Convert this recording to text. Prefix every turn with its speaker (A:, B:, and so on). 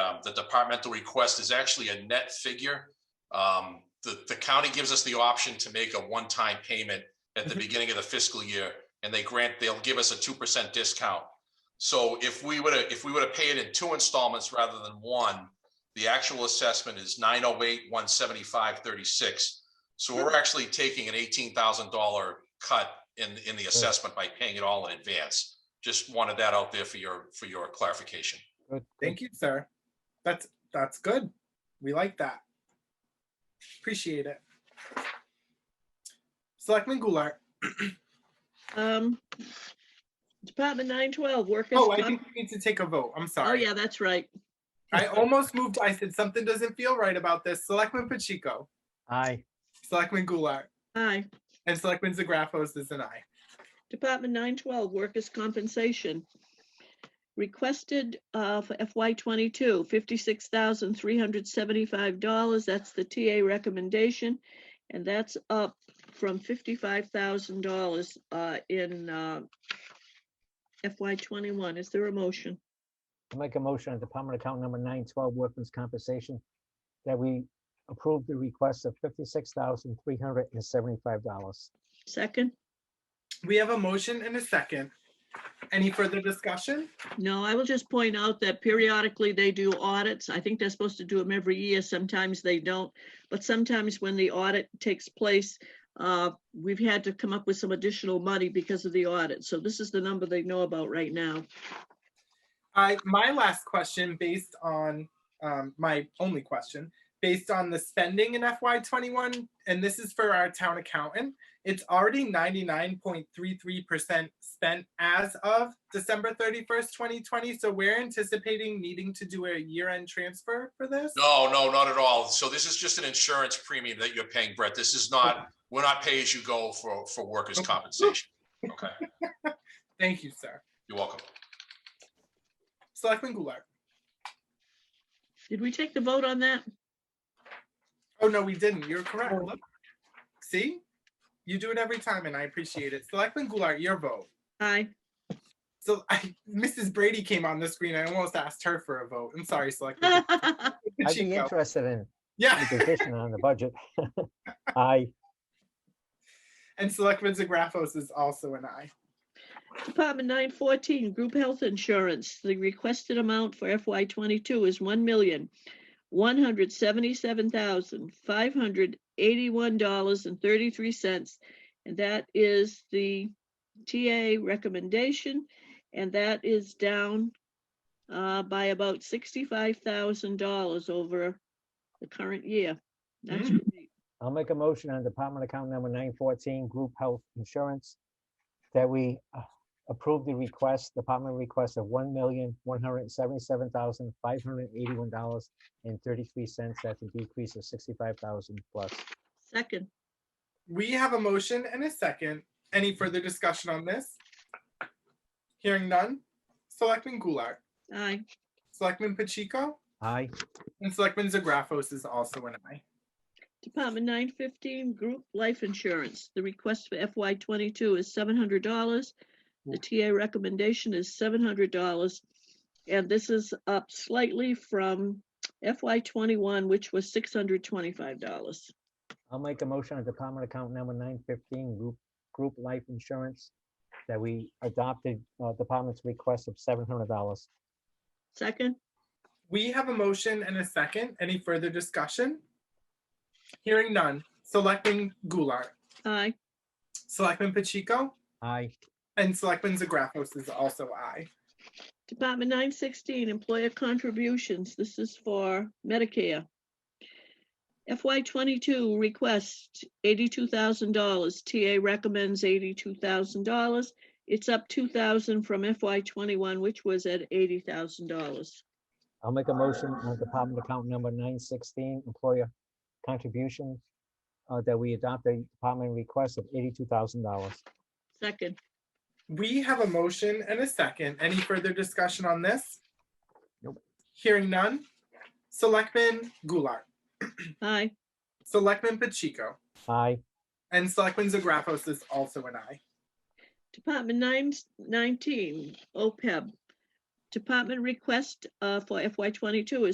A: um, the departmental request is actually a net figure. Um, the, the county gives us the option to make a one-time payment at the
B: Mhm.
A: beginning of the fiscal year, and they grant, they'll give us a two percent discount. So if we were to, if we were to pay it in two installments rather than one, the actual assessment is nine oh eight, one seventy-five, thirty-six. So we're actually taking an eighteen thousand dollar cut in, in the assessment by paying it all in advance. Just wanted that out there for your, for your clarification.
B: Good, good.
C: Thank you, sir. That's, that's good. We like that. Appreciate it. Selectman Goulart.
D: Um, Department nine twelve, workers.
C: Oh, I
D: comp-
C: think we need to take a vote. I'm
D: Oh,
C: sorry.
D: yeah, that's right.
C: I almost moved. I said something doesn't feel right about this. Selectman Pacheco,
B: Aye,
C: Selectman Goulart,
D: Aye.
C: and Selectman Zagrafos is an aye.
D: Department nine twelve, workers' compensation. Requested uh for FY 22 56,375 dollars. That's the TA recommendation. And that's up from fifty-five thousand dollars uh in uh FY twenty-one. Is there a motion?
B: I'll make a motion on department account number nine twelve workman's compensation that we approve the request of fifty-six thousand three hundred and seventy-five dollars.
D: Second?
C: We have a motion and a second. Any further discussion?
D: No, I will just point out that periodically they do audits. I think they're supposed to do them every year. Sometimes they don't. But sometimes when the audit takes place, uh, we've had to come up with some additional money because of the audit. So this is the number they know about right now.
C: I, my last question, based on, um, my only question, based on the spending in FY twenty-one, and this is for our town accountant, it's already ninety-nine point three-three percent spent as of December thirty-first, twenty twenty, so we're anticipating needing to do a year-end transfer for this?
A: No, no, not at all. So this is just an insurance premium that you're paying, Brett. This is not, we're not pay as you go for, for workers'
C: Okay.
A: compensation. Okay,
C: Thank you, sir.
A: you're welcome.
C: Selectman Goulart.
D: Did we take the vote on that?
C: Oh, no, we didn't. You're correct. Look. See? You do it every time and I appreciate it. Selectman Goulart, your vote.
D: Aye.
C: So I, Mrs. Brady came on the screen. I almost asked her for a vote. I'm sorry, Selectman.
B: I'd be
C: Pacheco.
B: interested in
C: Yeah,
B: your position on the budget. Aye,
C: and Selectman Zagrafos is also an aye.
D: Department nine fourteen, group health insurance. The requested amount for FY twenty-two is one million, one hundred seventy-seven thousand, five hundred eighty-one dollars and thirty-three cents. And that is the TA recommendation, and that is down uh, by about sixty-five thousand dollars over the current year. That's great.
B: I'll make a motion on department account number nine fourteen group health insurance that we uh, approve the request, department request of one million one hundred and seventy-seven thousand five hundred and eighty-one dollars and thirty-three cents. That's a decrease of sixty-five thousand plus.
D: Second,
C: We have a motion and a second. Any further discussion on this? Hearing none. Selectman Goulart,
D: aye.
C: Selectman Pacheco,
B: Aye.
C: and Selectman Zagrafos is also an aye.
D: Department nine fifteen, group life insurance. The request for FY twenty-two is seven hundred dollars. The TA recommendation is seven hundred dollars. And this is up slightly from FY twenty-one, which was six hundred twenty-five dollars.
B: I'll make a motion on department account number nine fifteen, group, group life insurance, that we adopted, uh, department's request of seven hundred dollars.
D: Second,
C: We have a motion and a second. Any further discussion? Hearing none. Selectman Goulart,
D: aye.
C: Selectman Pacheco,
B: Aye,
C: and Selectman Zagrafos is also aye.
D: Department nine sixteen, employer contributions. This is for Medicare. FY twenty-two request eighty-two thousand dollars. TA recommends eighty-two thousand dollars. It's up two thousand from FY twenty-one, which was at eighty thousand dollars.
B: I'll make a motion on department account number nine sixteen, employer contribution, uh, that we adopt a department request of eighty-two thousand dollars.
D: Second,
C: We have a motion and a second. Any further discussion on this?
B: Nope.
C: Hearing none. Selectman Goulart,
D: aye.
C: Selectman Pacheco,
B: Aye,
C: and Selectman Zagrafos is also an aye.
D: Department nine E nineteen, OPEB. Department request uh, for FY twenty-two is